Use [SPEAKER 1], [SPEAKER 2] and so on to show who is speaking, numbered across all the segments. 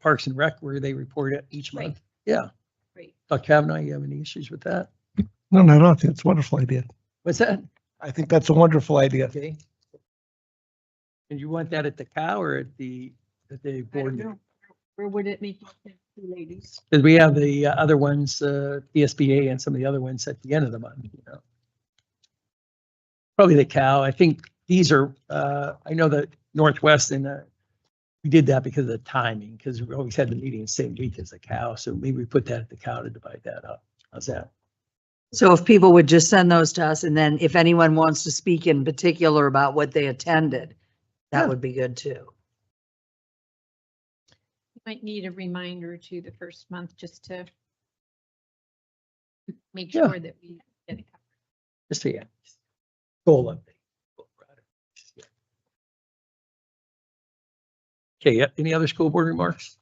[SPEAKER 1] Parks and Rec where they report it each
[SPEAKER 2] Right.
[SPEAKER 1] month. Yeah.
[SPEAKER 2] Great.
[SPEAKER 1] Dr. Kavanaugh, you have any issues with that?
[SPEAKER 3] No, no, no, I think it's a wonderful idea.
[SPEAKER 1] What's that?
[SPEAKER 3] I think that's a wonderful idea.
[SPEAKER 1] Okay. And you want that at the cow or at the, at the
[SPEAKER 2] I don't
[SPEAKER 1] board?
[SPEAKER 2] know. Where would it make, sense, ladies?
[SPEAKER 1] Because we have the uh, other ones, uh, ESBA and some of the other ones at the end of the month, you know. Probably the cow. I think these are, uh, I know that Northwest and, uh, we did that because of the timing, because we always had the meeting the same week as the cow. So maybe we put that at the cow to divide that up. How's that?
[SPEAKER 4] So if people would just send those to us and then if anyone wants to speak in particular about what they attended,
[SPEAKER 1] Yeah.
[SPEAKER 4] that would be good too.
[SPEAKER 2] Might need a reminder to the first month just to make
[SPEAKER 1] Yeah.
[SPEAKER 2] sure that we get it.
[SPEAKER 1] Just so yeah. Goal update. Okay, yeah, any other school board remarks?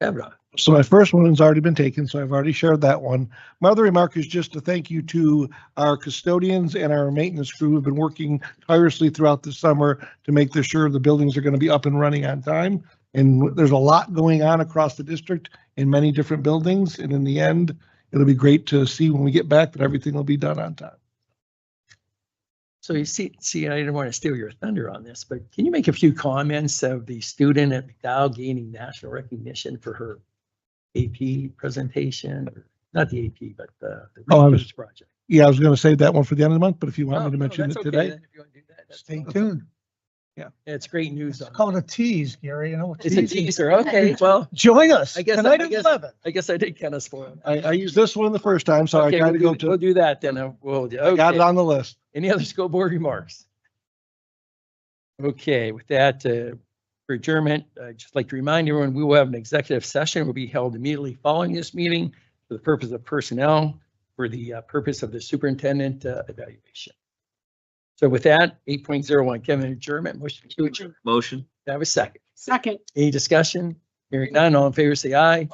[SPEAKER 1] Kavanaugh,
[SPEAKER 3] So my first one has already been taken, so I've already shared that one. My other remark is just a thank you to our custodians and our maintenance crew who've been working tirelessly throughout the summer to make this sure the buildings are going to be up and running on time. And there's a lot going on across the district in many different buildings. And in the end, it'll be great to see when we get back that everything will be done on time.
[SPEAKER 1] so you see, see, I didn't want to steal your thunder on this, but can you make a few comments of the student at McDowell gaining national recognition for her AP presentation? or- Not the AP, but the. the
[SPEAKER 3] Oh, I was-
[SPEAKER 1] research Project.
[SPEAKER 3] Yeah, I was going to save that one for the end of the month, but if you want me
[SPEAKER 1] Oh,
[SPEAKER 3] to
[SPEAKER 1] no,
[SPEAKER 3] mention
[SPEAKER 1] that's
[SPEAKER 3] it
[SPEAKER 1] okay
[SPEAKER 3] today.
[SPEAKER 1] then, if you wanna do that, that's
[SPEAKER 5] Stay
[SPEAKER 1] fine.
[SPEAKER 5] tuned.
[SPEAKER 1] It's great news.
[SPEAKER 5] It's
[SPEAKER 1] on-
[SPEAKER 5] called a tease, Gary, you know?
[SPEAKER 1] It's a teaser, okay, well,
[SPEAKER 5] Join us
[SPEAKER 1] I guess-
[SPEAKER 5] tonight
[SPEAKER 1] I
[SPEAKER 5] at
[SPEAKER 1] guess-
[SPEAKER 5] eleven.
[SPEAKER 1] I guess I did kind of spoil it.
[SPEAKER 3] I, I used this one the first time, so I
[SPEAKER 1] Okay,
[SPEAKER 3] tried to
[SPEAKER 1] we'll
[SPEAKER 3] go
[SPEAKER 1] do- We'll
[SPEAKER 3] to,
[SPEAKER 1] do that then. uh, We'll, do-
[SPEAKER 3] got
[SPEAKER 1] okay.
[SPEAKER 3] it on the list.
[SPEAKER 1] Any other school board remarks? Okay, with that, uh, for adjournment, uh, I'd just like to remind everyone, we will have an executive session will be held immediately following this meeting for the purpose of personnel, for the uh, purpose of the superintendent uh, evaluation. So with that, eight point zero one, Kevin, adjournment, motion to adjourn.
[SPEAKER 6] Motion.
[SPEAKER 1] Do I Have a second.
[SPEAKER 2] Second.
[SPEAKER 1] Any discussion? Hearing none, all in favor, say aye.